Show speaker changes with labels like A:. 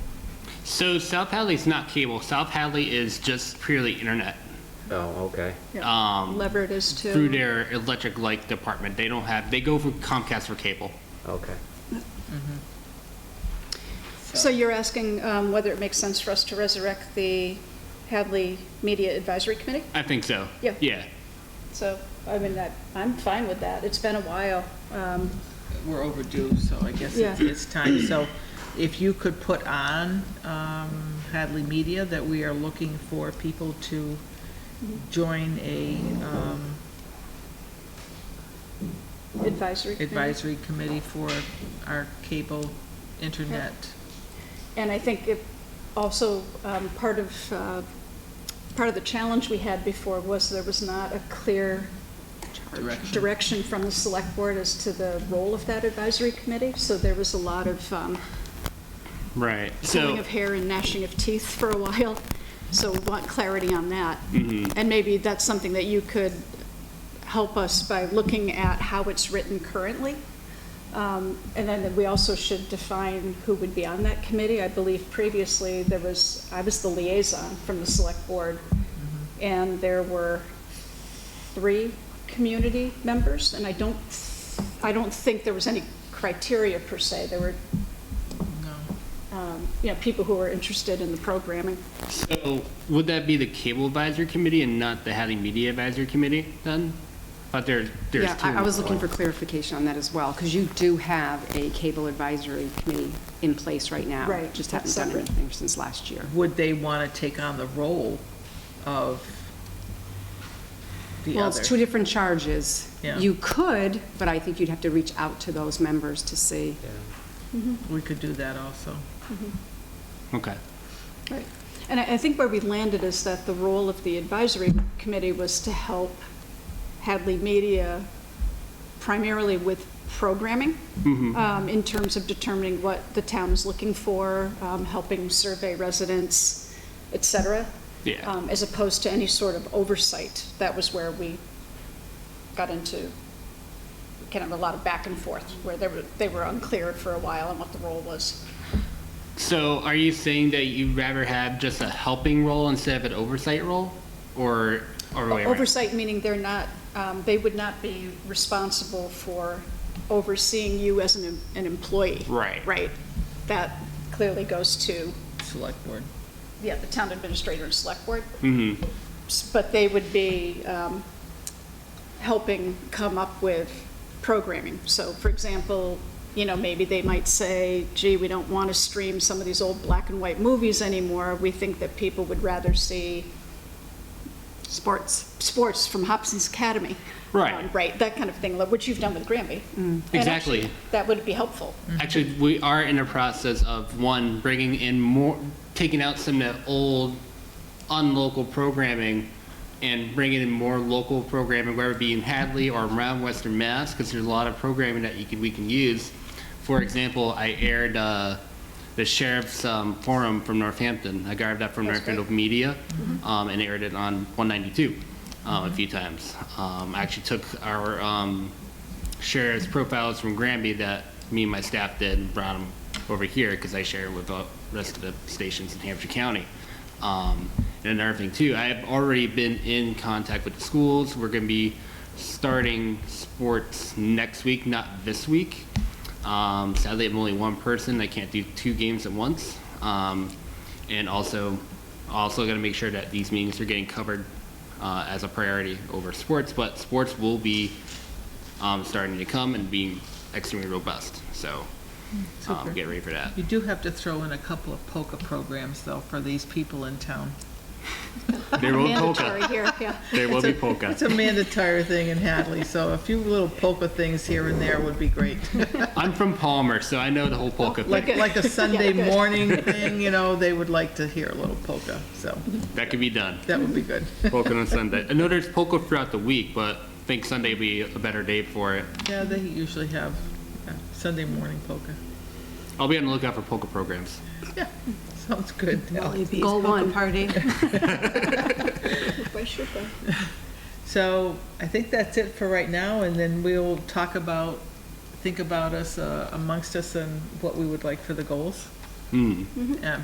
A: So South Hadley's not cable. South Hadley is just purely internet
B: Oh, okay.
A: Yeah. Um,
C: Leverett is too.
A: through their electric light department. They don't have, they go for Comcast for cable.
B: Okay.
C: So you're asking um, whether it makes sense for us to resurrect the Hadley Media Advisory Committee?
A: I think so.
C: Yeah.
A: Yeah.
C: So, I mean, I- I'm fine with that. It's been a while. Um,
D: We're overdue, so I guess it's,
C: Yeah.
D: it's time. So if you could put on um, Hadley Media that we are looking for people to join a um,
C: Advisory Committee.
D: advisory committee for our cable internet.
C: And I think it also, um, part of, uh, part of the challenge we had before was there was not a clear
D: Direction.
C: direction from the select board as to the role of that advisory committee. So there was a lot of um,
A: Right.
C: pulling
A: So,
C: of hair and gnashing of teeth for a while. So we want clarity on that.
A: Mm-hmm.
C: And maybe that's something that you could help us by looking at how it's written currently. Um, And then we also should define who would be on that committee. I believe previously there was, I was the liaison from the select board. And there were three community members. And I don't, I don't think there was any criteria per se. There were
D: No.
C: um, you know, people who are interested in the programming.
A: so would that be the cable advisory committee and not the Hadley Media Advisory Committee then? But there, there's
E: Yeah,
A: two.
E: I I was looking for clarification on that as well, because you do have a cable advisory committee in place right now.
C: Right,
E: Just
C: that's
E: haven't done
C: separate.
E: anything since last year.
D: Would they want to take on the role of the
E: Well, it's two
D: other?
E: different charges.
D: Yeah.
E: You could, but I think you'd have to reach out to those members to see.
B: Yeah.
D: We could do that also.
A: Okay.
C: Right. And I, I think where we landed is that the role of the advisory committee was to help Hadley Media primarily with programming, um, in terms of determining what the town is looking for, um, helping survey residents, et cetera.
A: Yeah.
C: Um, As opposed to any sort of oversight. That was where we got into kind of a lot of back and forth, where they were, they were unclear for a while on what the role was.
A: So are you saying that you'd rather have just a helping role instead of an oversight role? Or, or wait, wait.
C: Oversight meaning they're not, um, they would not be responsible for overseeing you as an, em- an employee.
A: Right.
C: Right. That clearly goes to,
D: Select board.
C: yeah, the town administrator and select board.
A: Mm-hmm.
C: S- But they would be um, helping come up with programming. So for example, you know, maybe they might say, gee, we don't want to stream some of these old black and white movies anymore. We think that people would rather see
E: Sports.
C: sports from Hobson's Academy.
A: Right.
C: Um, Right, that kind of thing, like what you've done with Granby. And
A: Exactly.
C: actually, That would be helpful.
A: Actually, we are in a process of one bringing in more, taking out some of the old, unlocal programming, and bringing in more local programming, whether it be in Hadley or around Western Mass, because there's a lot of programming that you can, we can use. For example, I aired uh, the sheriff's um, forum from Northampton. I grabbed that from
C: That's
A: Northfield Media, um, and aired it on 192 um, a few times. Um, I actually took our um, sheriff's profiles from Granby that me and my staff did and brought them over here because I share with the rest of the stations in Hampshire County. Um, and another thing too, I have already been in contact with the schools. We're going to be starting sports next week, not this week. Um, sadly, I'm only one person. I can't do two games at once. Um, and also, also going to make sure that these meetings are getting covered uh, as a priority over sports. But sports will be um, starting to come and being extremely robust. So um,
D: Super.
A: get ready for that.
D: You do have to throw in a couple of polka programs though for these people in town.
A: There will be polka.
C: Mandatory here, yeah.
A: There will be polka.
D: It's a mandatory thing in Hadley, so a few little polka things here and there would be great.
A: I'm from Palmer, so I know the whole polka
D: Like,
A: thing.
D: like a Sunday
C: good.
D: morning thing, you know, they would like to hear a little polka, so
A: That could be done.
D: that would be good.
A: Polka on Sunday. I know there's polka throughout the week, but I think Sunday would be a better day for it.
D: Yeah, they usually have yeah, Sunday morning polka.
A: I'll be on the lookout for polka programs.
D: Yeah, sounds good. Al.
E: Goal one. Party.
C: Why should they?
D: So I think that's it for right now, and then we'll talk about, think about us uh, amongst us and what we would like for the goals.
A: Mm.
D: Yeah,